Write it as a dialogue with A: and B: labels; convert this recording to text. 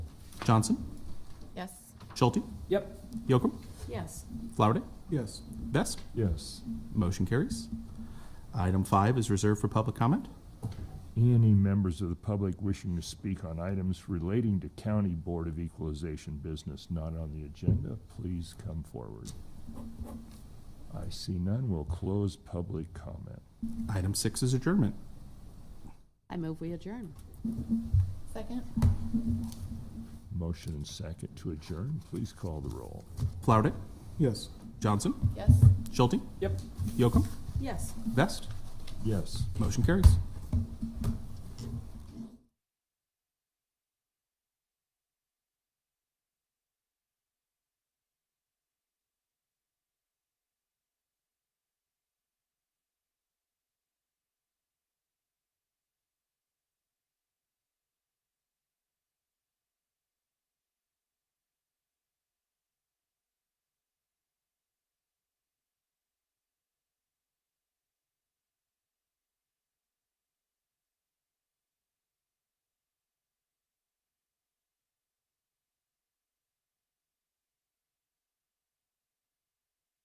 A: Johnson,
B: Yes.
A: Schulte,
C: Yep.
A: Yocum,
B: Yes.
A: Flowerday,
D: Yes.
A: Best.
D: Yes.
A: Motion carries. Item five is reserved for public comment.
D: Any members of the public wishing to speak on items relating to County Board of Equalization business not on the agenda, please come forward. I see none. We'll close public comment.
A: Item six is adjournment.
E: I move we adjourn.
B: Second?
D: Motion and second to adjourn. Please call the roll.
A: Flowerday,
F: Yes.
A: Johnson,
B: Yes.
A: Schulte,
C: Yep.
A: Yocum,
E: Yes.
A: Best.
D: Yes.
A: Motion carries.